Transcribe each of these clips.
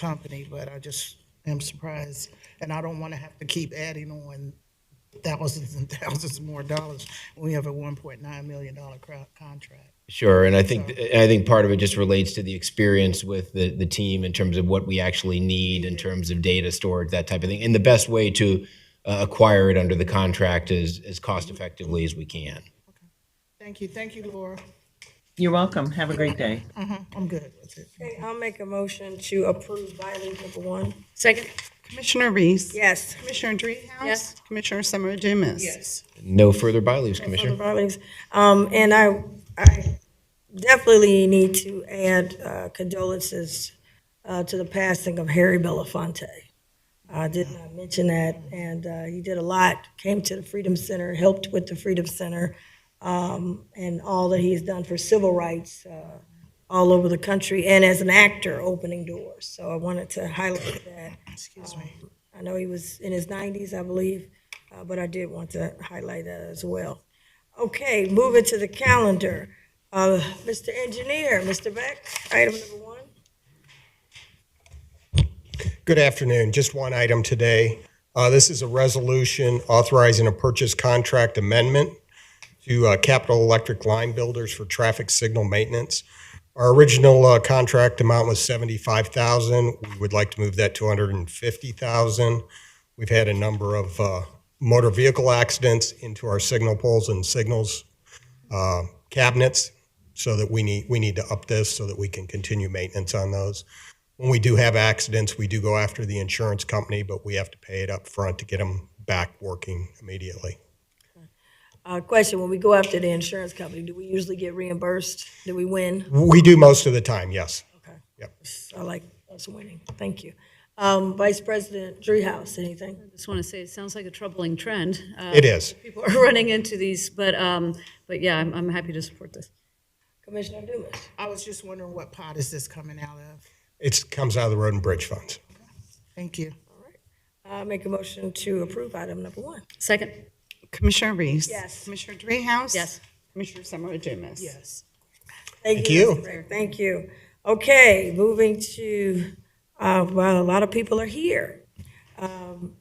company, but I just am surprised. And I don't want to have to keep adding on thousands and thousands more dollars. when We have a one point nine million dollar cro- contract. Sure, and I think I think part of it just relates to the experience with the, the team in terms of what we actually need in terms of data storage, that type of thing. And the best way to uh, acquire it under the contract is as cost effectively as we can. Thank you, thank you, Laura. You're welcome. Have a great day. I'm good with it. Okay, I'll make a motion to approve bylaw number one. Second? Commissioner Reese. Yes. Commissioner Dreehouse. Yes. Commissioner Summer Dumas. Yes. No further bylaws, for the Commissioner. filings. Um, and I, I definitely need to add uh, condolences uh, to the passing of Harry Belafonte. I did not mention that, and uh, he did a lot, came to the Freedom Center, helped with the Freedom Center, um, and all that he has done for civil rights uh, all over the country, and as an actor, opening doors. So I wanted to highlight that. Um, Excuse me. I know he was in his 90s, I believe, uh, but I did want to highlight that as well. Okay, moving to the calendar. Uh, Mr. Engineer, Mr. Beck, item number one. Good afternoon. Just one item today. Uh, This is a resolution authorizing a purchase contract amendment to uh, Capital Electric Line Builders for traffic signal maintenance. Our original uh, contract amount was 75000 We would like to move that to 150000 We've had a number of uh, motor vehicle accidents into our signal poles and signals uh, cabinets, so that we need, we need to up this so that we can continue maintenance on those when we do have accidents, we do go after the insurance company, but we have to pay it up front to get them back working immediately. Uh, Question, when we go after the insurance company, do we usually get reimbursed? Do we win? We do most of the time, yes. Okay, Yep. I like us winning. Thank you. Um, Vice President Dreehouse, anything? Just want to say, it sounds like a troubling trend. Uh, It is. People are running into these, but, um, but yeah, I'm, I'm happy to support this. Commissioner Dumas? I was just wondering what pot is this coming out of? It comes out of the road and bridge funds. Thank you. I make a motion to approve item number one. Second? Commissioner Reese. Yes. Commissioner Dreehouse. Yes. Commissioner Summer Dumas. Yes. Thank Thank you. you. Mr. Rick. Thank you. Okay, moving to, uh, well, a lot of people are here. Um,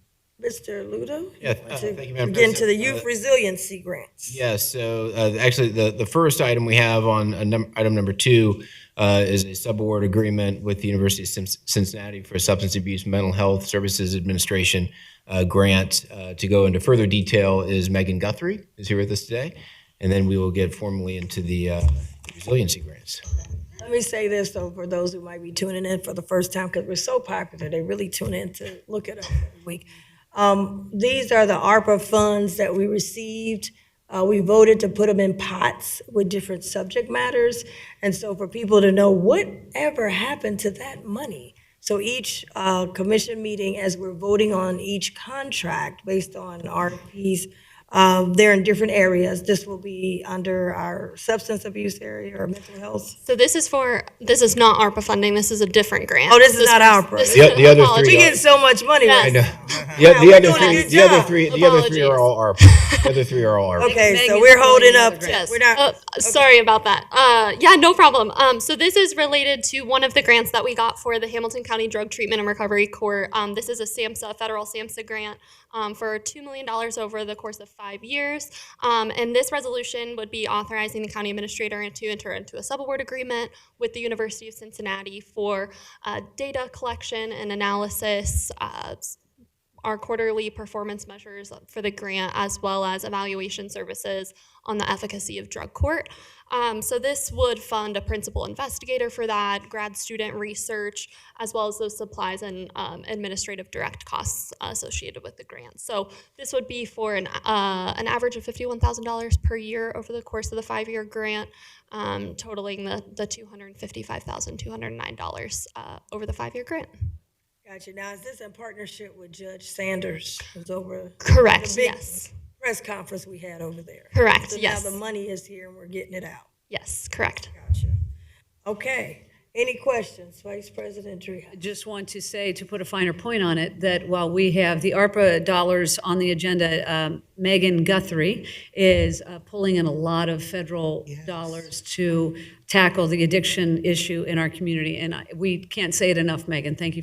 Mr. Ludo? Yeah, uh, to thank you, Madam Get into the President. youth resiliency grants. Yes, so uh, actually, the, the first item we have on uh, num- item number two uh, is a subaward agreement with the University of Cin- Cincinnati for a Substance Abuse Mental Health Services Administration uh, grant. Uh, To go into further detail is Megan Guthrie is here with us today, and then we will get formally into the uh, resiliency grants. Let me say this, though, for those who might be tuning in for the first time, because we're so popular, they really tune in to look at us every week. Um, These are the ARPA funds that we received. Uh, We voted to put them in pots with different subject matters. And so for people to know whatever happened to that money. So each uh, commission meeting, as we're voting on each contract based on RFPs, um, they're in different areas. This will be under our substance abuse area or mental health. So this is for this is not ARPA funding. This is a different grant. Oh, this is not our this- program. The the other Apologies. three. We are- get so much money. Yes. right No, now. The oth- the we're other doing a three, good the other job. three, the other three are Apologies. all ARPA. The other three are all ARPA. Okay, so Megan's we're holding holding up. another to- Yes. We're not, Uh, Sorry about that. Uh, yeah, no problem. Um, so this is related to one of the grants that we got for the Hamilton County Drug Treatment and Recovery Court. Um, this is a SAMHSA, federal SAMHSA grant um, for $2 million over the course of five years. Um, and this resolution would be authorizing the county administrator to enter into a subaward agreement with the University of Cincinnati for uh, data collection and analysis, uh, our quarterly performance measures for the grant as well as evaluation services on the efficacy of drug court. Um, so this would fund a principal investigator for that, grad student research, as well as those supplies and um, administrative direct costs associated with the grant. So this would be for an, uh, an average of $51,000 per year over the course of the five-year grant, um, totaling the, the $255,209 uh, over the five-year grant. gotcha. Now, is this in partnership with Judge Sanders? It was over a Correct, big- yes. press conference we had over there. Correct, So yes. now the money is here and we're getting it out. Yes, correct. Gotcha. Okay. Any questions, Vice President Dreehouse? just want to say, to put a finer point on it, that while we have the ARPA dollars on the agenda, um, Megan Guthrie is uh, pulling in a lot of federal dollars to tackle the addiction issue in our community. And I- we can't say it enough, Megan. Thank you